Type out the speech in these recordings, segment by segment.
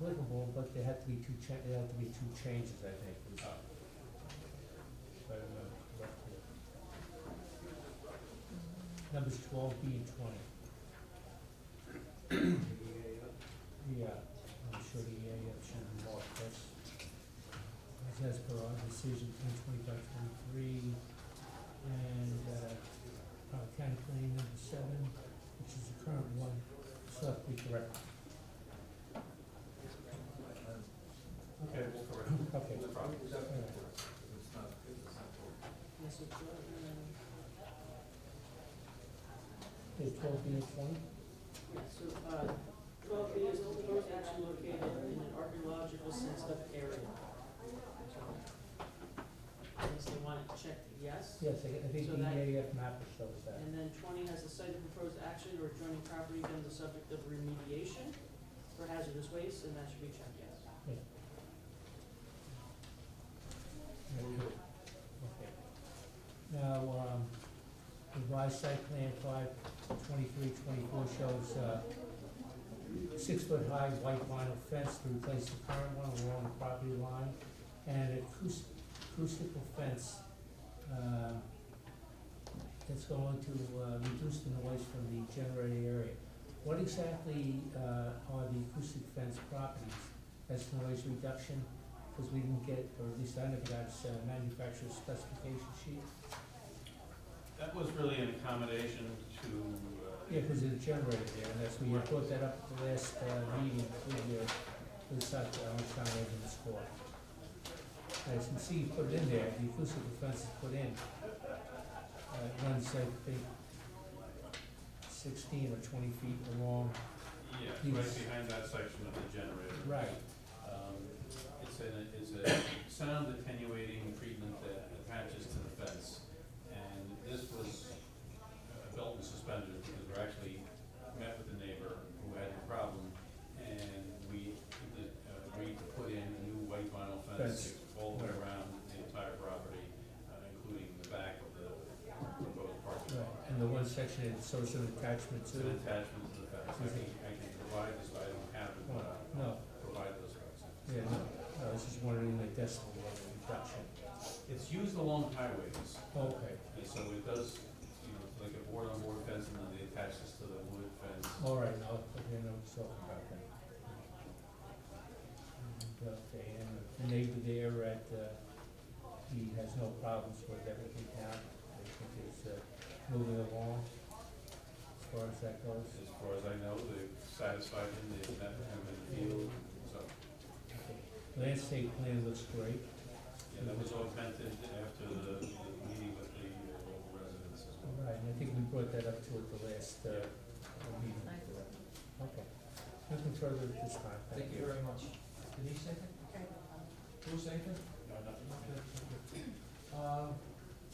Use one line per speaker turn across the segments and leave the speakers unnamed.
applicable, but there had to be two cha, there had to be two changes, I think, was. if I remember correctly. Numbers twelve B and twenty. Yeah, I'm sure the EAF should be marked, that's, that's as per our decision, ten twenty-five twenty-three, and, uh, uh, county plan number seven, which is the current one, so that we correct.
Okay, we'll correct it.
Okay.
No problem.
All
It's
right.
not, it's not for-
Is twelve B and twenty?
So, uh, twelve B is the proposed action located in an archaeological sensitive area. Unless they want it checked, yes.
Yes, I I think
So
the
that-
EAF map shows that.
And then twenty has the site of proposed action or adjoining property been the subject of remediation for hazardous waste, and that should be checked, yes.
Okay. Okay. Now, um, revised site plan five twenty-three twenty-four shows, uh, six-foot-high white vinyl fence to replace the current one along the property line, and acoustic, acoustical fence, uh, that's going to, uh, reduce the noise from the generated area. What exactly, uh, are the acoustic fence properties? That's noise reduction, because we didn't get, or at least I never got, uh, manufacturer's specification sheet.
That was really an accommodation to,
Yeah,
uh,
because it generated there, and that's, we had brought that up at the last, uh, meeting, we, uh, we decided that I was trying to open this court. As you can see, you put it in there, the acoustic fence is put in. Uh, it runs, I think, sixteen or twenty feet along.
yeah,
Yes.
right behind that section of the generator.
Right.
Um, It's an, it's a sound attenuating treatment that attaches to the fence. And this was uh, belt and suspenders because we actually met with the neighbor who had a problem. And we uh, agreed to put in a new white vinyl
Fence.
fence all the way around the entire property, uh, including the back of the proposed parking lot.
And the one section had social attachment
It's
to
an
it.
attachment to the fence. I can, I can provide this, but I don't have it, but I'll
No,
provide those records.
yeah, no, I was just wondering the decimal level reduction.
It's used along highways,
Okay,
and so it does, you know, like a board-on-board fence, and then they attach this to the wood fence.
all right, now, okay, now we're talking about that. And, Okay, and the neighbor there at, uh, he has no problems with everything now, I think it's, uh, moving along as far as that goes.
As far as I know, they've satisfied him, they've met him in the field, so,
Okay. Landscape plan looks great,
yeah, that was augmented after the, the meeting with the uh, local residents as
all
well.
right, and I think we brought that up to at the last, uh, meeting. Okay, nothing further at this time, thank you.
Thank you very much. Denise second? Who second?
No, nothing.
Uh,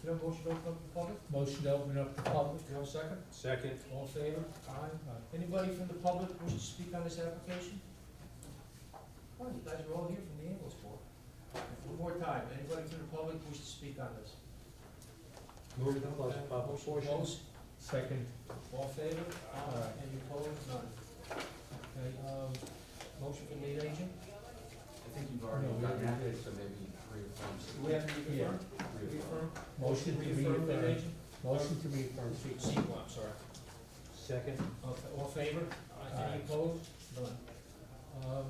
you know, motion to open up the public?
Motion to open up the public. Uh,
You know, second?
Second.
All in favor? Aye. Anybody from the public wish to speak on this application? Oh, you guys are all here from the ambulance board. One more time, anybody from the public wish to speak on this?
Move to close the public
Motion to
portion.
close.
Second,
All in favor?
Aye.
Any opposed? None. Okay, um, motion for lead agent?
I think you've
No,
already
we
done
did.
that, so maybe reaffirm.
Do we have to reaffirm? Reaffirm?
motion to
Reaffirm lead
reaffirm.
agent?
Motion to reaffirm.
Sequel, I'm sorry.
Second.
All all in favor?
Aye.
Any opposed? None. Um,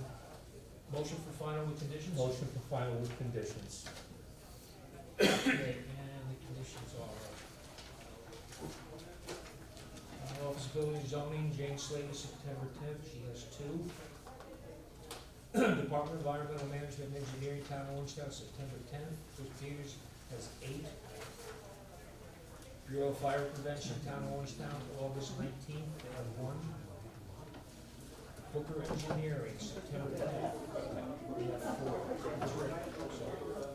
Motion for final with conditions?
Motion for final with conditions.
Okay, and the conditions are. uh, Office Building Zoning, Jane Slater, September tenth, she has two. Department of Environmental Management and Engineering, Town of Orange Town, September tenth, Chris Peters has eight. Bureau of Fire Prevention, Town of Orange Town, August nineteenth, they have one. Booker Engineering, September tenth. They have four, Three, sorry.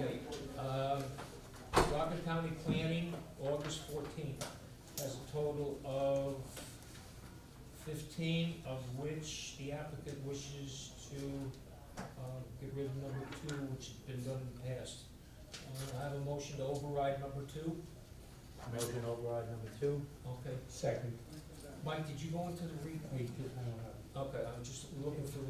Okay, um, Rockland County Planning, August fourteenth, has a total of fifteen, of which the applicant wishes to, uh, get rid of number two, which has been done in the past. Uh, I have a motion to override number two,
Motion override number two.
okay.
Second.
Mike, did you go into the re,
We do- I don't have-
Okay.
I'm just looking for the